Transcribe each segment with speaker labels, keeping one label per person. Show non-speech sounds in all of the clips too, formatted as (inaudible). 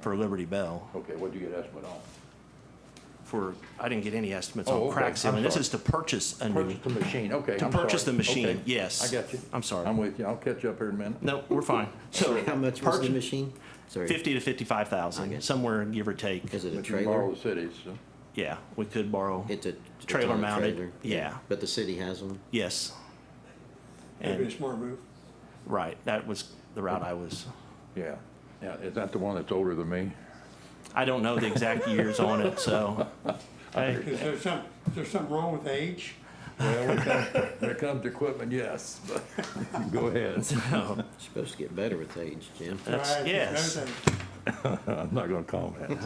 Speaker 1: for Liberty Bell
Speaker 2: Okay, what do you get estimate on?
Speaker 1: for, I didn't get any estimates
Speaker 2: Oh,
Speaker 1: on
Speaker 2: okay.
Speaker 1: crack sealing.
Speaker 2: I'm
Speaker 1: This
Speaker 2: sorry.
Speaker 1: is to purchase a new.
Speaker 2: Purchase the machine, okay.
Speaker 1: To
Speaker 2: I'm
Speaker 1: purchase
Speaker 2: sorry.
Speaker 1: the machine,
Speaker 2: Okay.
Speaker 1: yes.
Speaker 2: I got you.
Speaker 1: I'm sorry.
Speaker 2: I'm with you. I'll catch up here in a minute.
Speaker 1: No, we're fine. So.
Speaker 3: Sorry, (laughs) how much was the
Speaker 1: purchase-
Speaker 3: machine? Sorry.
Speaker 1: Fifty to fifty-five thousand,
Speaker 3: Okay.
Speaker 1: somewhere give or take.
Speaker 3: Is it a
Speaker 2: But you borrow
Speaker 3: trailer?
Speaker 2: the cities, so.
Speaker 1: Yeah, we could borrow.
Speaker 3: It's a. it's
Speaker 1: Trailer
Speaker 3: on a
Speaker 1: mounted,
Speaker 3: trailer.
Speaker 1: yeah.
Speaker 3: But the city has one?
Speaker 1: Yes.
Speaker 4: Maybe a
Speaker 1: And,
Speaker 4: smart move.
Speaker 1: right, that was the route I was.
Speaker 2: yeah. Yeah, is that the one that's older than me?
Speaker 1: I don't know the exact years on it, so. (laughs) Hey,
Speaker 4: Is there some, is there something wrong with age?
Speaker 2: Well, (laughs) when it comes- when it comes to equipment, yes, but, (laughs) go ahead.
Speaker 1: no,
Speaker 3: It's Supposed to get better with age, Jim.
Speaker 1: That's-
Speaker 4: Right,
Speaker 1: yes.
Speaker 4: everything.
Speaker 2: I'm not gonna comment.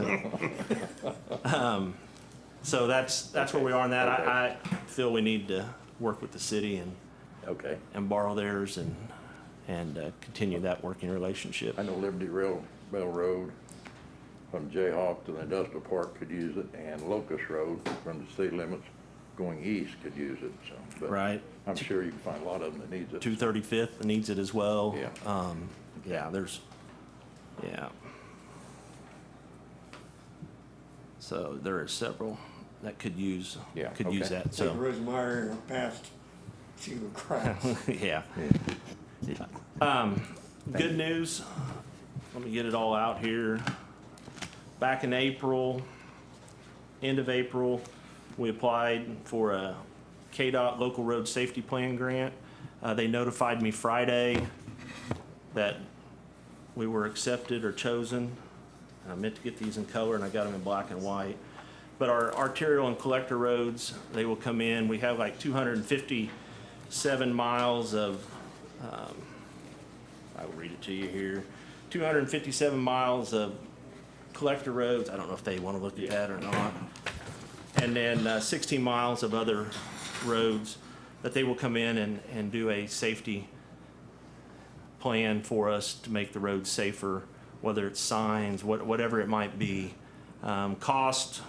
Speaker 1: So that's, that's where we are on that. I, I feel we need to work with the city and,
Speaker 2: (laughs) Okay.
Speaker 1: and borrow theirs and, and uh, continue that working relationship.
Speaker 2: I know Liberty Rail, Railroad from Jayhawk to the industrial park could use it, and Locust Road from the city limits going east could use it, so. but
Speaker 1: Right.
Speaker 2: I'm sure you can find a lot of them that needs it.
Speaker 1: Two thirty-fifth needs it as well.
Speaker 2: Yeah.
Speaker 1: Um, yeah, there's, yeah. So there are several that could use,
Speaker 2: Yeah,
Speaker 1: could use
Speaker 2: okay.
Speaker 1: that,
Speaker 4: Take
Speaker 1: so,
Speaker 4: Rosemeyer past, see what
Speaker 1: (laughs)
Speaker 4: cracks.
Speaker 1: yeah. Yeah. Um, good news, let me get it all out here. Back in April, end of April, we applied for a KDOT Local Road Safety Plan grant. Uh, they notified me Friday that we were accepted or chosen. And I meant to get these in color and I got them in black and white. But our arterial and collector roads, they will come in. We have like two hundred and fifty-seven miles of, um, I will read it to you here. Two hundred and fifty-seven miles of collector roads. I don't know if they want to look at that or not. And then uh, 16 miles of other roads that they will come in and, and do a safety plan for us to make the roads safer, whether it's signs, what, whatever it might be. Um, cost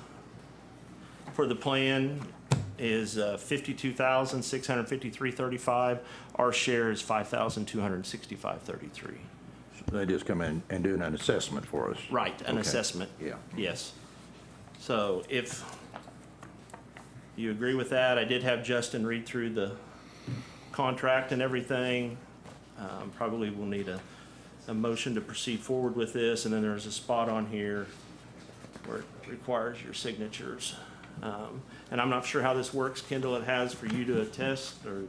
Speaker 1: for the plan is uh, 52,653.35. Our share is 5,265.33.
Speaker 2: They just come in and do an assessment for us.
Speaker 1: Right, an
Speaker 2: Okay.
Speaker 1: assessment.
Speaker 2: Yeah.
Speaker 1: Yes. So if you agree with that, I did have Justin read through the contract and everything. Um, Probably will need a, a motion to proceed forward with this, and then there's a spot on here where it requires your signatures. Um, And I'm not sure how this works, Kendall, it has for you to attest, or,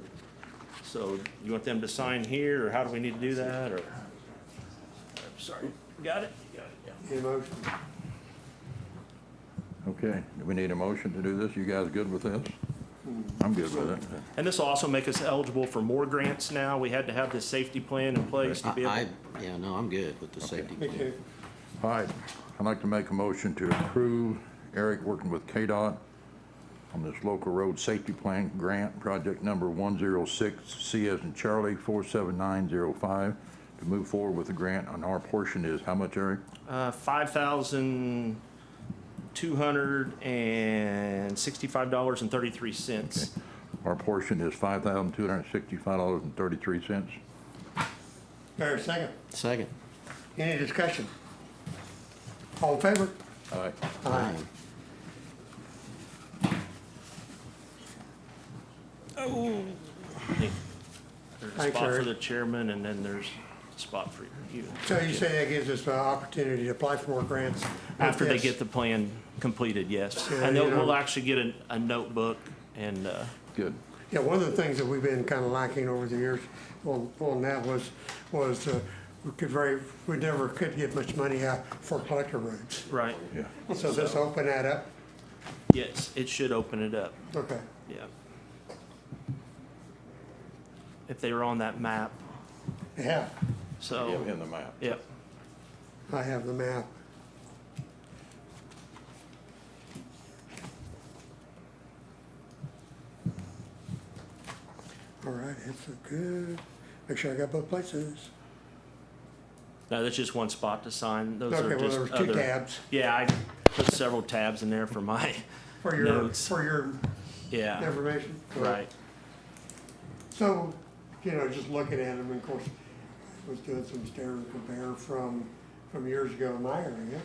Speaker 1: so you want them to sign here, or how do we need to do that, or? Sorry, got it? Got it, yeah.
Speaker 4: Need a motion?
Speaker 2: Okay, do we need a motion to do this? You guys good with this? I'm good with it.
Speaker 1: And this will also make us eligible for more grants now. We had to have this safety plan in place to be
Speaker 3: I,
Speaker 1: able.
Speaker 3: I- yeah, no, I'm good with the safety
Speaker 4: Me
Speaker 3: plan.
Speaker 4: too.
Speaker 2: All right, I'd like to make a motion to approve Eric working with KDOT on this local road safety plan grant, project number 106, C as in Charlie, 47905, to move forward with the grant, and our portion is how much, Eric?
Speaker 1: Uh, five thousand two hundred and sixty-five dollars and thirty-three cents.
Speaker 2: Our portion is $5,265.33.
Speaker 4: Fair second.
Speaker 3: Second.
Speaker 4: Any discussion? All in favor?
Speaker 2: All right,
Speaker 3: Aye.
Speaker 1: There's a
Speaker 4: Thanks,
Speaker 1: spot for
Speaker 4: Eric.
Speaker 1: the chairman and then there's a spot for you.
Speaker 4: So you say that gives us an opportunity to apply for more grants?
Speaker 1: After they
Speaker 4: Yes.
Speaker 1: get the plan completed, yes.
Speaker 4: Yeah,
Speaker 1: And they'll-
Speaker 4: you know-
Speaker 1: we'll actually get a, a notebook and, uh,
Speaker 2: good.
Speaker 4: Yeah, one of the things that we've been kind of lacking over the years on, on that was, was uh, we could very, we never could get much money out for collector roads.
Speaker 1: right,
Speaker 2: Yeah.
Speaker 4: So this open that up?
Speaker 1: yes, it should open it up.
Speaker 4: Okay.
Speaker 1: Yeah. If they were on that map,
Speaker 4: Yeah,
Speaker 2: Give
Speaker 1: so,
Speaker 2: him the map.
Speaker 1: yeah.
Speaker 4: I have the map. All right, that's a good, make sure I got both places.
Speaker 1: No, that's just one spot to sign. Those
Speaker 4: Okay,
Speaker 1: are
Speaker 4: well,
Speaker 1: just
Speaker 4: there was two
Speaker 1: other-
Speaker 4: tabs
Speaker 1: Yeah, I put several tabs in there for my, (laughs)
Speaker 4: for your,
Speaker 1: Notes.
Speaker 4: for your
Speaker 1: yeah,
Speaker 4: information.
Speaker 1: right.
Speaker 4: So, you know, just looking at them, of course, I was doing some stereo compare from, from years ago in my area.